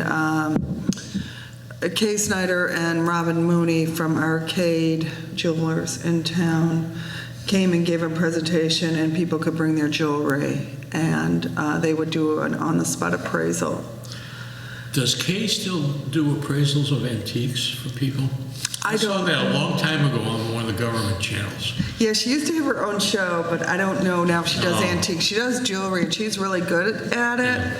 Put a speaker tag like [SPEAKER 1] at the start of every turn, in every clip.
[SPEAKER 1] Um, Kay Snyder and Robin Mooney from Arcade Jewelers in town came and gave a presentation, and people could bring their jewelry, and uh, they would do an on-the-spot appraisal.
[SPEAKER 2] Does Kay still do appraisals of antiques for people?
[SPEAKER 1] I
[SPEAKER 2] saw
[SPEAKER 1] don't-
[SPEAKER 2] that a long time ago on one of the government channels.
[SPEAKER 1] Yeah, she used to have her own show, but I don't know now if she does
[SPEAKER 2] Oh.
[SPEAKER 1] antique. She does jewelry, and she's really good at it.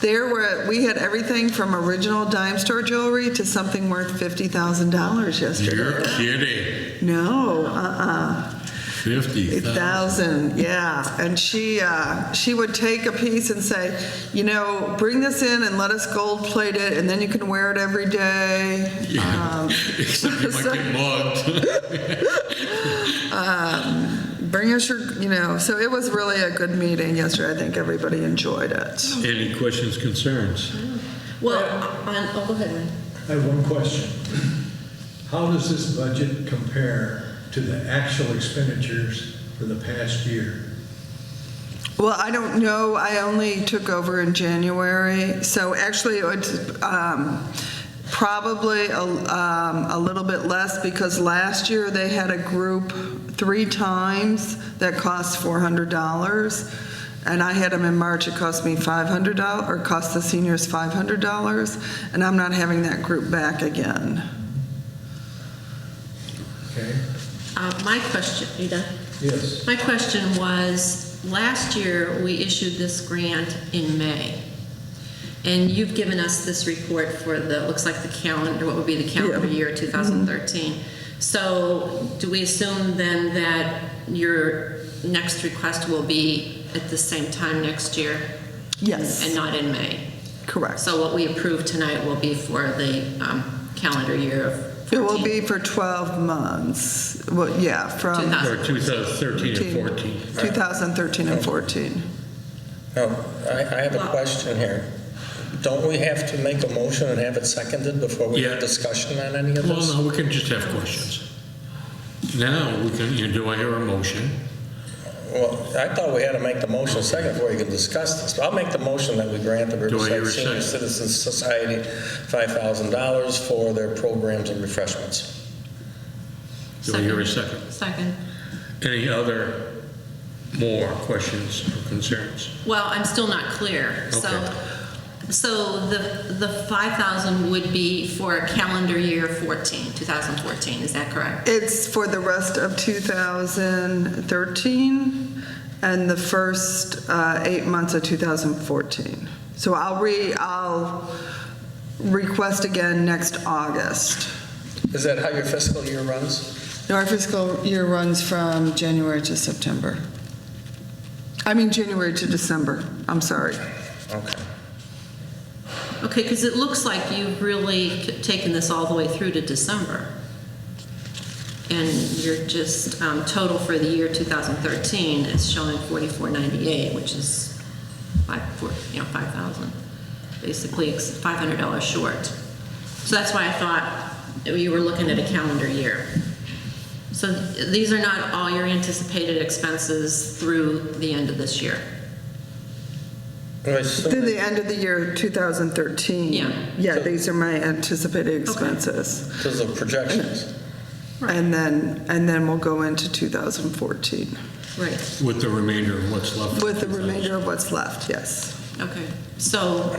[SPEAKER 1] There were, we had everything from original dime store jewelry to something worth $50,000
[SPEAKER 2] You're
[SPEAKER 1] yesterday.
[SPEAKER 2] kidding.
[SPEAKER 1] No, uh-uh.
[SPEAKER 2] 50,000.
[SPEAKER 1] thousand, yeah. And she uh, she would take a piece and say, you know, bring this in and let us gold plate it, and then you can wear it every day.
[SPEAKER 2] Yeah. Except you might get mugged.
[SPEAKER 1] Bring us your, you know. So it was really a good meeting yesterday. I think everybody enjoyed it.
[SPEAKER 2] Any questions, concerns?
[SPEAKER 3] Well, on, oh, go ahead, Ryan.
[SPEAKER 4] I have one question. How does this budget compare to the actual expenditures for the past year?
[SPEAKER 1] Well, I don't know. I only took over in January, so actually it's um, probably a, um, a little bit less because last year they had a group three times that cost four hundred dollars, and I had them in March. It cost me five hundred dollars, or cost the seniors five hundred dollars, and I'm not having that group back again.
[SPEAKER 4] Okay?
[SPEAKER 3] Uh, my question, you done?
[SPEAKER 4] Yes.
[SPEAKER 3] My question was, last year, we issued this grant in May. And you've given us this report for the, looks like the calendar, what would be the calendar
[SPEAKER 1] Yeah.
[SPEAKER 3] year 2013. So do we assume then that your next request will be at the same time next year?
[SPEAKER 1] Yes.
[SPEAKER 3] And not in May?
[SPEAKER 1] Correct.
[SPEAKER 3] So what we approve tonight will be for the um, calendar year of 14.
[SPEAKER 1] It will be for twelve months. Well, yeah, from.
[SPEAKER 3] 2000.
[SPEAKER 2] Or 2013 and 14?
[SPEAKER 1] 2013 and 14.
[SPEAKER 5] Now, I, I have a question here. Don't we have to make a motion and have it seconded before we
[SPEAKER 2] Yeah.
[SPEAKER 5] have discussion on any of this?
[SPEAKER 2] Well, no, we can just have questions. Now, we can, you know, do I hear a motion?
[SPEAKER 5] Well, I thought we had to make the motion second before you can discuss this. I'll make the motion that we grant the
[SPEAKER 2] Do I hear
[SPEAKER 5] Riverside
[SPEAKER 2] a
[SPEAKER 5] Senior
[SPEAKER 2] second?
[SPEAKER 5] Citizens Society $5,000 for their programs and refreshments.
[SPEAKER 2] Do I hear a second?
[SPEAKER 3] Second.
[SPEAKER 2] Any other more questions or concerns?
[SPEAKER 3] Well, I'm still not clear. So,
[SPEAKER 2] Okay.
[SPEAKER 3] so the, the 5,000 would be for calendar year 14, 2014, is that correct?
[SPEAKER 1] It's for the rest of 2013 and the first uh, eight months of 2014. So I'll re, I'll request again next August.
[SPEAKER 5] Is that how your fiscal year runs?
[SPEAKER 1] No, Our fiscal year runs from January to September. I mean, January to December, I'm sorry.
[SPEAKER 5] Okay.
[SPEAKER 3] Okay, because it looks like you've really c- taken this all the way through to December. And your just um, total for the year 2013 is showing 4498, which is five, four, you know, 5,000. Basically, it's $500 short. So that's why I thought that you were looking at a calendar year. So th- these are not all your anticipated expenses through the end of this year.
[SPEAKER 5] Well, I assume
[SPEAKER 1] Through the end of the year 2013.
[SPEAKER 3] Yeah.
[SPEAKER 1] Yeah, these are my anticipated expenses.
[SPEAKER 5] Those are projections.
[SPEAKER 1] And then, and then we'll go into 2014
[SPEAKER 3] Right.
[SPEAKER 2] With the remainder of what's left? of
[SPEAKER 1] with the
[SPEAKER 2] 2000.
[SPEAKER 1] remainder of what's left, yes.
[SPEAKER 3] Okay, so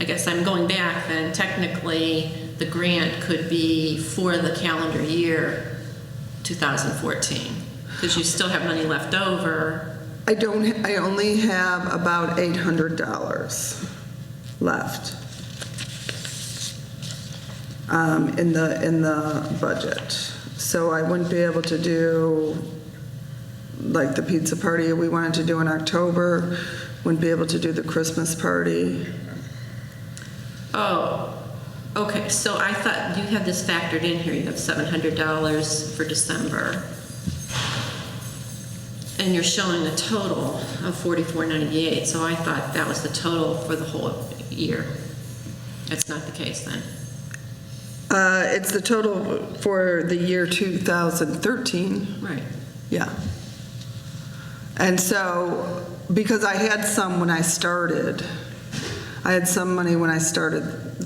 [SPEAKER 3] I guess I'm going back then, technically, the grant could be for the calendar year 2014, because you still have money left over.
[SPEAKER 1] I don't, I only have about $800 left um, in the, in the budget. So I wouldn't be able to do, like, the pizza party we wanted to do in October, wouldn't be able to do the Christmas party.
[SPEAKER 3] Oh, okay, so I thought you had this factored in here, you have $700 for December, and you're showing a total of 4498, so I thought that was the total for the whole year. That's not the case then.
[SPEAKER 1] Uh, It's the total for the year 2013.
[SPEAKER 3] Right.
[SPEAKER 1] Yeah. And so, because I had some when I started, I had some money when I started